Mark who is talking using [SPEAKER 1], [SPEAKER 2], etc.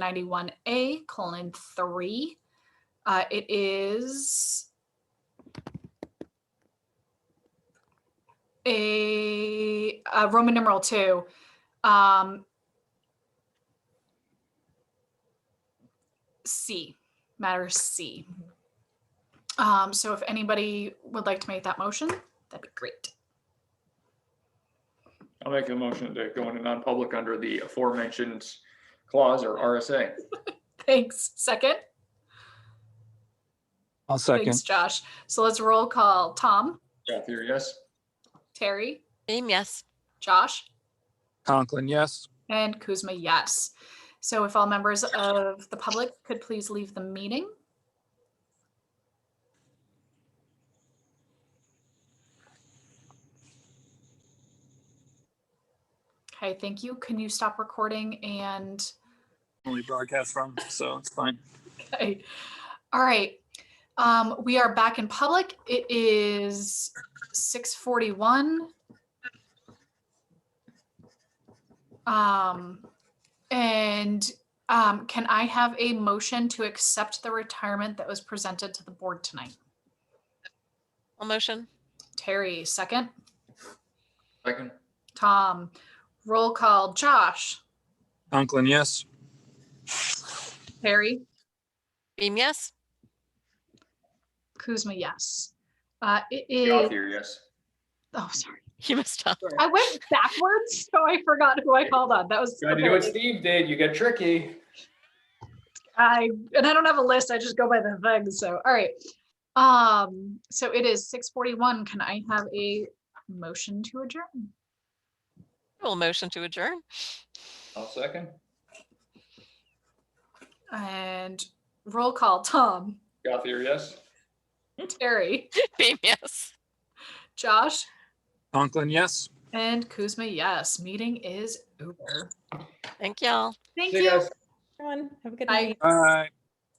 [SPEAKER 1] ninety-one A colon three. Uh, it is a, uh Roman numeral two. Um, C, matter C. Um, so if anybody would like to make that motion, that'd be great.
[SPEAKER 2] I'll make a motion to go into non-public under the aforementioned clause or RSA.
[SPEAKER 1] Thanks. Second?
[SPEAKER 3] I'll
[SPEAKER 1] Thanks,
[SPEAKER 3] second.
[SPEAKER 1] Josh. So let's roll call. Tom,
[SPEAKER 2] Kathy, or yes?
[SPEAKER 1] Terry,
[SPEAKER 4] Beam, yes.
[SPEAKER 1] Josh?
[SPEAKER 3] Conklin, yes.
[SPEAKER 1] And Kuzma, yes. So if all members of the public could please leave the meeting. Okay, thank you. Can you stop recording and,
[SPEAKER 3] Only broadcast from, so it's fine.
[SPEAKER 1] okay. all right. Um, we are back in public. It is six forty-one. Um, and, um, can I have a motion to accept the retirement that was presented to the board tonight?
[SPEAKER 4] All motion?
[SPEAKER 1] Terry, second.
[SPEAKER 2] Second?
[SPEAKER 1] Tom, roll call. Josh,
[SPEAKER 3] Conklin, yes.
[SPEAKER 1] Terry,
[SPEAKER 4] Beam, yes.
[SPEAKER 1] Kuzma, yes. Uh, it
[SPEAKER 2] Kathy,
[SPEAKER 1] is,
[SPEAKER 2] or yes?
[SPEAKER 1] oh, sorry.
[SPEAKER 4] You must stop.
[SPEAKER 1] I went backwards, so I forgot who I called on. That was.
[SPEAKER 2] Tried to do what Steve did. You got tricky.
[SPEAKER 1] I and I don't have a list. I just go by the thing. So all right. Um, so it is six forty-one. Can I have a motion to adjourn?
[SPEAKER 4] All motion to adjourn.
[SPEAKER 2] I'll second.
[SPEAKER 1] And roll call, Tom,
[SPEAKER 2] Kathy, or yes?
[SPEAKER 1] Terry,
[SPEAKER 4] Beam, yes.
[SPEAKER 1] Josh,
[SPEAKER 3] Conklin, yes.
[SPEAKER 1] and Kuzma. Yes, meeting is over.
[SPEAKER 4] Thank y'all.
[SPEAKER 1] Thank
[SPEAKER 2] See you
[SPEAKER 1] you.
[SPEAKER 2] guys.
[SPEAKER 5] Everyone, have a good
[SPEAKER 1] Bye.
[SPEAKER 5] night.
[SPEAKER 3] All right.